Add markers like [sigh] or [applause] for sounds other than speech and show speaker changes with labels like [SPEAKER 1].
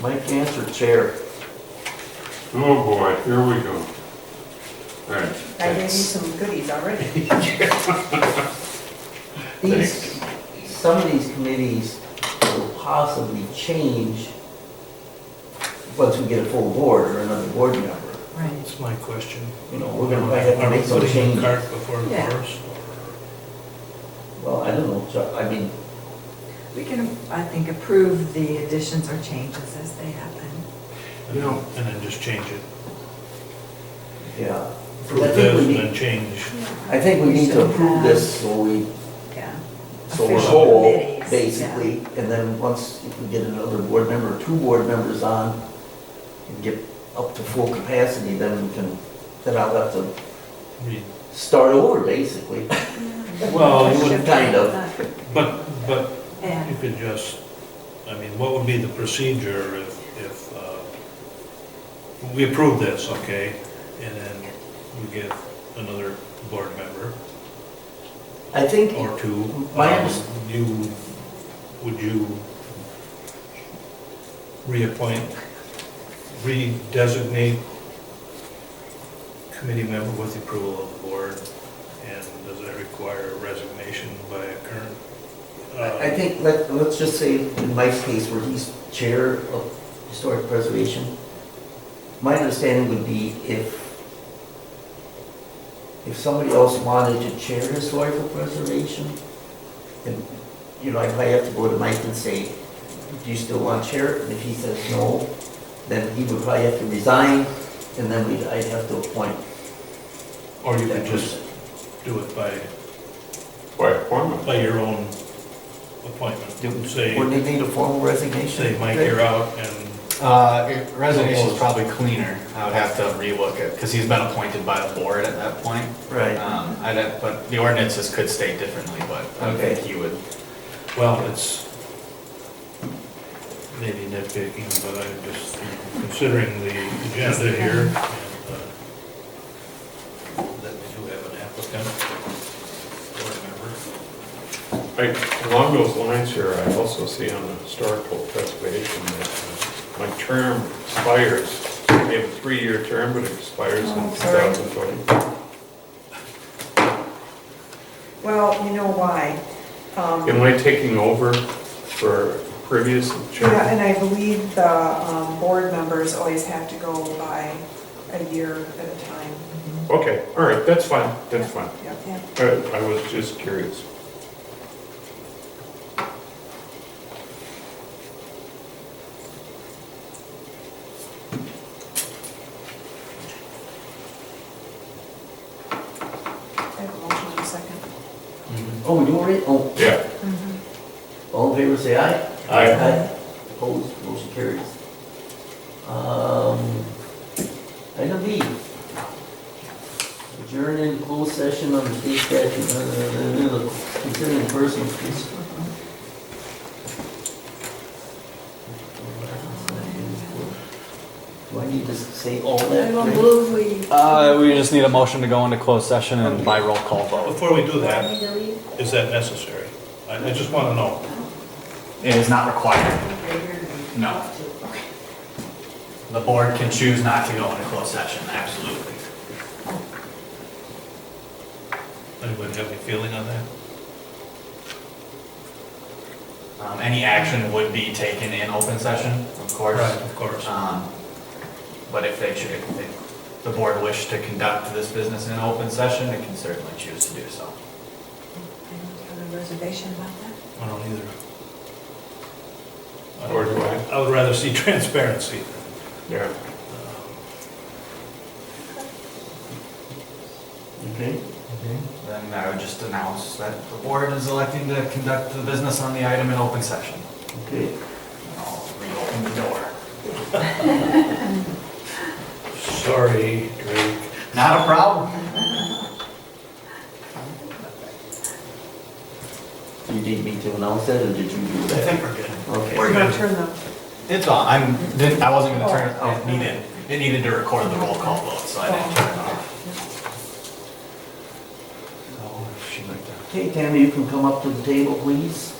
[SPEAKER 1] Mike Cantor Chair.
[SPEAKER 2] Oh, boy, here we go. All right.
[SPEAKER 3] I gave you
[SPEAKER 2] thanks.
[SPEAKER 3] some goodies
[SPEAKER 1] [laughs]
[SPEAKER 3] already.
[SPEAKER 1] These, some of these committees will possibly change once we get a full board or another board member.
[SPEAKER 3] Right.
[SPEAKER 4] That's my question.
[SPEAKER 1] You know, we're gonna probably have to make some
[SPEAKER 4] Are we putting
[SPEAKER 1] changes.
[SPEAKER 4] the cart before the
[SPEAKER 3] Yeah.
[SPEAKER 4] horse?
[SPEAKER 1] Well, I don't know, Chuck, I mean,
[SPEAKER 5] We can, I think, approve the additions or changes as they happen.
[SPEAKER 4] And then- and then just change it.
[SPEAKER 1] yeah.
[SPEAKER 4] Prove
[SPEAKER 1] I think
[SPEAKER 4] this
[SPEAKER 1] we
[SPEAKER 4] and
[SPEAKER 1] need,
[SPEAKER 4] then change.
[SPEAKER 1] I think we need to approve this so we,
[SPEAKER 5] Yeah.
[SPEAKER 1] so we're
[SPEAKER 5] Official
[SPEAKER 1] whole,
[SPEAKER 5] committees,
[SPEAKER 1] basically. And then once, if we get another board member, two board members on, and get up to full capacity, then we can, then I'll have to
[SPEAKER 4] Re-
[SPEAKER 1] start over, basically.
[SPEAKER 4] Well, you
[SPEAKER 1] would kind of.
[SPEAKER 4] But, but
[SPEAKER 5] Yeah.
[SPEAKER 4] you could just, I mean, what would be the procedure if, if, uh, we approve this, okay? And then we get another board member
[SPEAKER 1] I think,
[SPEAKER 4] or two.
[SPEAKER 1] My
[SPEAKER 4] Um,
[SPEAKER 1] underst-
[SPEAKER 4] You, would you reappoint, redesignate committee member with the approval of the board? And does that require resignation by a current? uh,
[SPEAKER 1] I think, let, let's just say in Mike's case where he's chair of historic preservation, my understanding would be if, if somebody else wanted to chair historical preservation, then, you know, I probably have to go to Mike and say, do you still want chair? And if he says no, then he would probably have to resign and then we'd, I'd have to appoint
[SPEAKER 4] Or you
[SPEAKER 1] that
[SPEAKER 4] could just
[SPEAKER 1] person.
[SPEAKER 4] do it by,
[SPEAKER 2] By appointment.
[SPEAKER 4] by your own appointment.
[SPEAKER 1] Would
[SPEAKER 4] Say,
[SPEAKER 1] they need a formal resignation?
[SPEAKER 4] say, Mike, you're out, and
[SPEAKER 6] Uh, it- resignation's probably cleaner. I would have to relook it, because he's been appointed by the board at that point.
[SPEAKER 1] Right,
[SPEAKER 6] Um, I'd have, but the ordinances could state differently, but I don't think
[SPEAKER 1] Okay.
[SPEAKER 6] he would.
[SPEAKER 4] Well, it's maybe nitpicking, but I'm just considering the agenda here. and, uh, That we do have an applicant, board member.
[SPEAKER 2] I- Along those lines here, I also see on the historical preservation that uh, my term expires. I have a three-year term, but it expires in
[SPEAKER 3] Oh, sorry.
[SPEAKER 2] 2020.
[SPEAKER 3] Well, you know why? Um,
[SPEAKER 2] Am I taking over for previous chair?
[SPEAKER 3] Yeah, and I believe the um, board members always have to go by a year at a time.
[SPEAKER 2] Okay, all right, that's fine, that's fine.
[SPEAKER 3] Yep.
[SPEAKER 2] All right, I was just curious.
[SPEAKER 3] I have a motion in a second.
[SPEAKER 1] oh, we do already, oh.
[SPEAKER 2] Yeah.
[SPEAKER 1] All in favor, say aye.
[SPEAKER 2] Aye.
[SPEAKER 1] Opposed, motion carries. Um, Item B. Adjourn in closed session on the state statute, uh, uh, uh, uh, considering personal. case. Do I need to say all that?
[SPEAKER 5] move we.
[SPEAKER 6] Uh, we just need a motion to go into closed session and by roll call vote.
[SPEAKER 4] Before we do
[SPEAKER 5] I
[SPEAKER 4] that,
[SPEAKER 5] need to leave.
[SPEAKER 4] is that necessary? I, I just want to know.
[SPEAKER 6] It is not required. No. The board can choose not to go into closed session, absolutely.
[SPEAKER 4] Anybody have any feeling on that?
[SPEAKER 6] Um, any action would be taken in open session, of course.
[SPEAKER 4] Of course.
[SPEAKER 6] Um, But if they, cho- if they- the board wished to conduct this business in an open session, it can certainly choose to do so.
[SPEAKER 5] Have a reservation about that?
[SPEAKER 4] I don't either. I don't-
[SPEAKER 2] Or do I?
[SPEAKER 4] I would rather see [laughs] transparency.
[SPEAKER 2] Yeah.
[SPEAKER 1] Okay.
[SPEAKER 6] Then I would just announce that the board is electing to conduct the business on the item in open session.
[SPEAKER 1] Okay.
[SPEAKER 6] And I'll reopen the door.
[SPEAKER 4] Sorry, Drake.
[SPEAKER 6] Not a problem.
[SPEAKER 1] Do you need me to announce that, or did you do
[SPEAKER 6] I [laughs]
[SPEAKER 1] that?
[SPEAKER 6] think we're good.
[SPEAKER 1] Okay.
[SPEAKER 3] We're gonna turn the,
[SPEAKER 6] It's on, I'm, didn't- I wasn't gonna turn it, off. needed, it needed to record the roll call vote, so I didn't turn it off. So, if she'd like to- Oh,
[SPEAKER 1] Okay, Tammy, you can come up to the table, please.